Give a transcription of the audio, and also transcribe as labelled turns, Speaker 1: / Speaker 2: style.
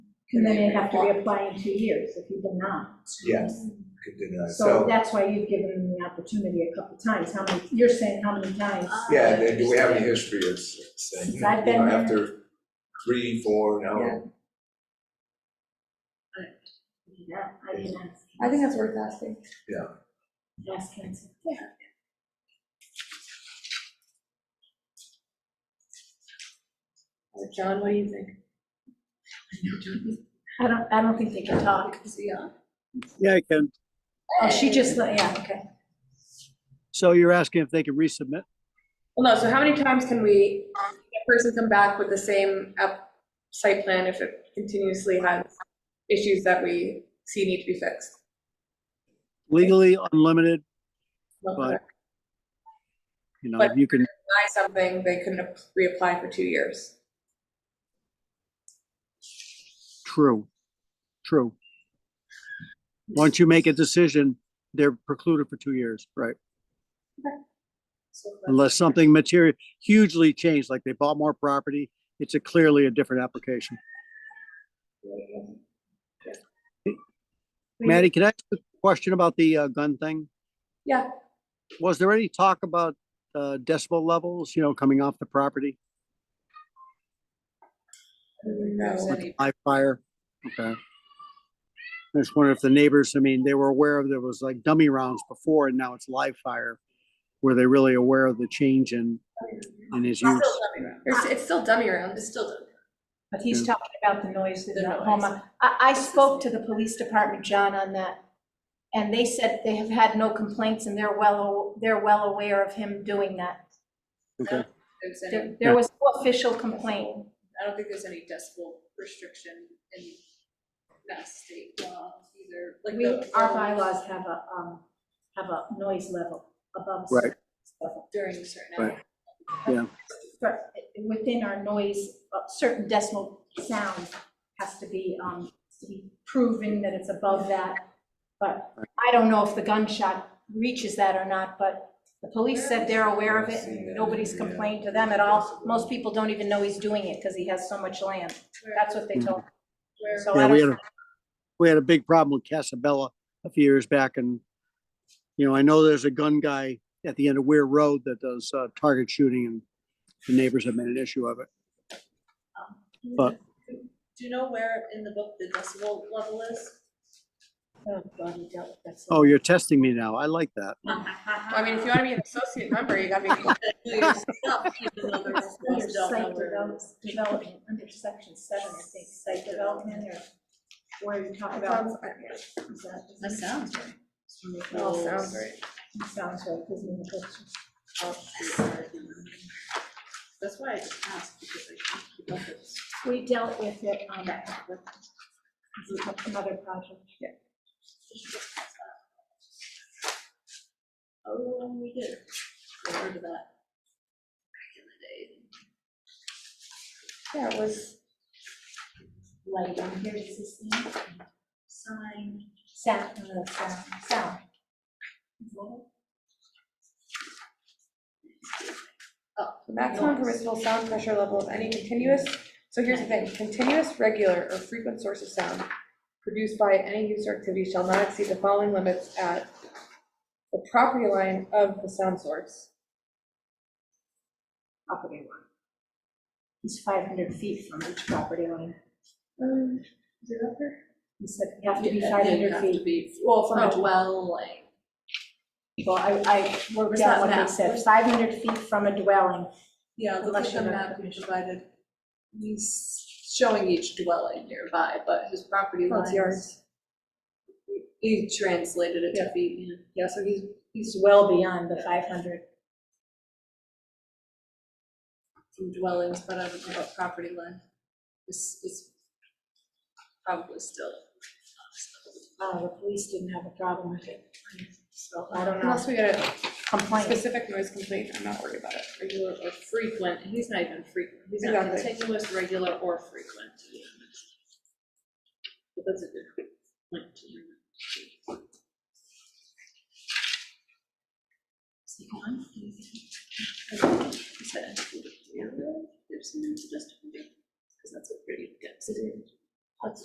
Speaker 1: And then you'd have to reapply in two years if you did not.
Speaker 2: Yes, could do that.
Speaker 1: So
Speaker 2: uh, So,
Speaker 1: that's why you've given them the opportunity a couple times. How many, you're saying how many times?
Speaker 2: Uh, yeah, then do we have any history of saying, you
Speaker 1: Since
Speaker 2: know,
Speaker 1: I've been there.
Speaker 2: after three, four, now,
Speaker 1: Yeah, I can ask,
Speaker 3: I think that's worth asking.
Speaker 1: ask council.
Speaker 3: John, what do you think?
Speaker 1: I don't, I don't think they can talk.
Speaker 3: Is he on?
Speaker 4: Yeah, I can.
Speaker 1: Oh, she just, let- yeah, okay.
Speaker 4: So you're asking if they can resubmit?
Speaker 3: Well, no, so how many times can we, a person come back with the same app, site plan if it continuously has issues that we see need to be fixed?
Speaker 4: Legally unlimited,
Speaker 3: Well,
Speaker 4: But-
Speaker 3: if
Speaker 4: you know,
Speaker 3: But-
Speaker 4: you can,
Speaker 3: they Buy something, they couldn't ap- reapply for two years.
Speaker 4: true, true. Once you make a decision, they're precluded for two years, right?
Speaker 3: So,
Speaker 4: Unless something material, hugely changed, like they bought more property, it's a clearly a different application.
Speaker 1: We-
Speaker 4: Maddie, can I ask a question about the uh, gun thing?
Speaker 3: Yeah.
Speaker 4: Was there any talk about uh, decibel levels, you know, coming off the property?
Speaker 3: No, any-
Speaker 4: Live fire, okay. I just wonder if the neighbors, I mean, they were aware of, there was like dummy rounds before and now it's live fire. Were they really aware of the change in, in his
Speaker 3: It's
Speaker 4: use?
Speaker 3: still dummy round. It's it's still dummy round, it's still dummy.
Speaker 1: But he's
Speaker 4: Yeah.
Speaker 1: talking about the noise in
Speaker 3: The noise.
Speaker 1: Oklahoma. I, I spoke to the police department, John, on that. And they said they have had no complaints and they're well, they're well aware of him doing that.
Speaker 4: Okay,
Speaker 3: There's any-
Speaker 1: There, there was no official complaint.
Speaker 3: I don't think there's any decibel restriction in that state law either. Like
Speaker 1: We,
Speaker 3: the-
Speaker 1: our bylaws have a, um, have a noise level above.
Speaker 4: Right.
Speaker 1: certain level.
Speaker 3: During certain
Speaker 4: Right.
Speaker 3: hours.
Speaker 1: But within our noise, a certain decimal sound has to be, um, to be proven that it's above that. But I don't know if the gunshot reaches that or not, but the police said they're aware of it and nobody's complained to them at all. Most people don't even know he's doing it because he has so much land. That's what they told me.
Speaker 3: Where-
Speaker 1: So I
Speaker 4: yeah,
Speaker 1: don't.
Speaker 4: we had, a we had a big problem with Casabella a few years back and, you know, I know there's a gun guy at the end of Weir Road that does, uh, target shooting and the neighbors have made an issue of it. But-
Speaker 5: Do you know where in the book the decibel level is?
Speaker 1: Oh, God, we dealt with that so
Speaker 4: Oh, you're testing me now. I like that.
Speaker 1: Uh-huh.
Speaker 3: I mean, if you want to be an associate member, you gotta be.
Speaker 1: Under site develop- development, under section seven, I think, site development or where you talk about. Is that- is
Speaker 5: That
Speaker 1: that-
Speaker 5: sounds right.
Speaker 1: Oh, sounds right. It Sounds right, because in the picture.
Speaker 5: That's why I just asked because I can't keep up with this.
Speaker 1: We dealt with it on that, with with another project.
Speaker 5: Oh, and we did. I heard of that. Back in the day.
Speaker 3: Yeah, it was,
Speaker 1: Lighting, here's existing, sign, sound, no, sound, sound.
Speaker 3: the maximum permissible sound pressure level of any continuous, so here's the thing, continuous, regular, or frequent source of sound produced by any use or activity shall not exceed the following limits at the property line of the sound source.
Speaker 1: Property line. It's five hundred feet from each property line.
Speaker 3: Um, is it up there?
Speaker 1: He said you have to be
Speaker 5: Yeah,
Speaker 1: five
Speaker 5: then you
Speaker 1: hundred
Speaker 5: have to
Speaker 1: feet. Oh.
Speaker 5: be
Speaker 3: Well,
Speaker 5: From a dwelling.
Speaker 1: Well, I, I worked
Speaker 5: Where's
Speaker 1: out
Speaker 5: that
Speaker 1: what they
Speaker 5: map?
Speaker 1: said, five hundred feet from a dwelling.
Speaker 5: Yeah, look
Speaker 1: Unless
Speaker 5: at the
Speaker 1: you're not
Speaker 5: map we provided. He's showing each dwelling nearby, but his property
Speaker 3: Oh, it's
Speaker 5: lines.
Speaker 3: yours.
Speaker 5: He translated it to feet, yeah.
Speaker 1: Yeah, so he's, he's well beyond the five hundred.
Speaker 5: from dwellings, but I don't know about property line. This is probably still.
Speaker 1: Uh, the police didn't have a problem with it, so I don't know,
Speaker 3: Unless we get a
Speaker 1: complaint.
Speaker 3: specific noise complaint, I'm not worried about it.
Speaker 5: Regular or frequent, he's not even frequent, he's not
Speaker 3: Exactly.
Speaker 5: continuous, regular or frequent. But that's a good point to bring up. Is it on? Is that included? Yeah, there's something to justify, because that's a pretty good.